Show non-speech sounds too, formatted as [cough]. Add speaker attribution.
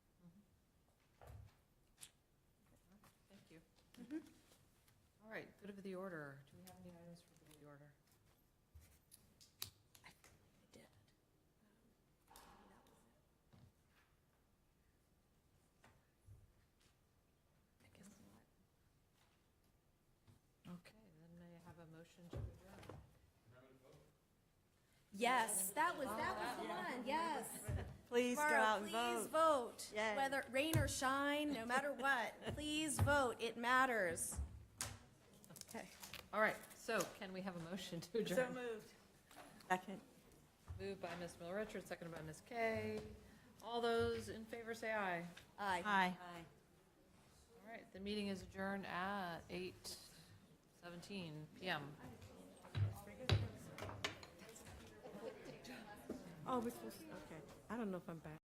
Speaker 1: All right, good of the order. Do we have any items for good of the order? Okay, then may I have a motion to adjourn?
Speaker 2: Yes, that was, that was the one, yes.
Speaker 3: Please go
Speaker 2: Tomorrow,
Speaker 3: out and
Speaker 2: please
Speaker 3: vote.
Speaker 2: vote.
Speaker 3: Yay.
Speaker 2: Whether rain or shine, no matter
Speaker 3: [laughs]
Speaker 2: what, please vote. It matters. Okay.
Speaker 1: All right, so can we have a motion to adjourn?
Speaker 3: moved. Second.
Speaker 1: Moved by Ms. Miller Richards, seconded by Ms. Kay. All those in favor say aye.
Speaker 2: Aye.
Speaker 3: Aye.
Speaker 1: All right, the meeting is adjourned at 8:17 PM.
Speaker 3: Oh, we're supposed, okay. I don't know if I'm back.